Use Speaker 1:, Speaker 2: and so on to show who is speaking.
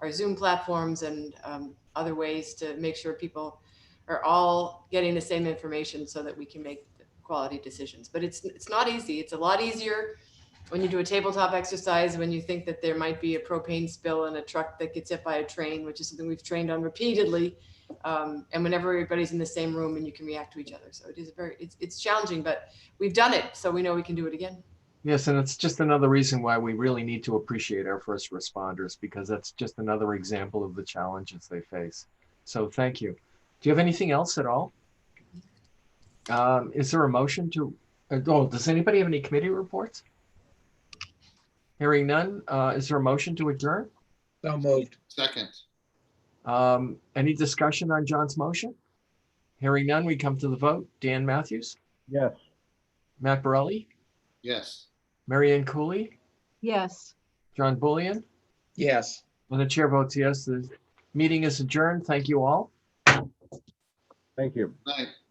Speaker 1: our Zoom platforms and um, other ways to make sure people are all getting the same information so that we can make quality decisions. But it's it's not easy. It's a lot easier when you do a tabletop exercise when you think that there might be a propane spill in a truck that gets hit by a train, which is something we've trained on repeatedly. Um, and whenever everybody's in the same room and you can react to each other, so it is a very it's it's challenging, but we've done it, so we know we can do it again.
Speaker 2: Yes, and it's just another reason why we really need to appreciate our first responders because that's just another example of the challenges they face. So thank you. Do you have anything else at all? Um, is there a motion to, uh, oh, does anybody have any committee reports? Hearing none, uh, is there a motion to adjourn?
Speaker 3: So moved.
Speaker 4: Second,
Speaker 2: Um, any discussion on John's motion? Hearing none, we come to the vote. Dan Matthews,
Speaker 3: Yes.
Speaker 2: Matt Borelli,
Speaker 4: yes.
Speaker 2: Mary Ann Cooley,
Speaker 5: Yes.
Speaker 2: John Bullion,
Speaker 3: Yes.
Speaker 2: When the chair votes yes, the meeting is adjourned. Thank you all.
Speaker 6: Thank you.
Speaker 4: Night.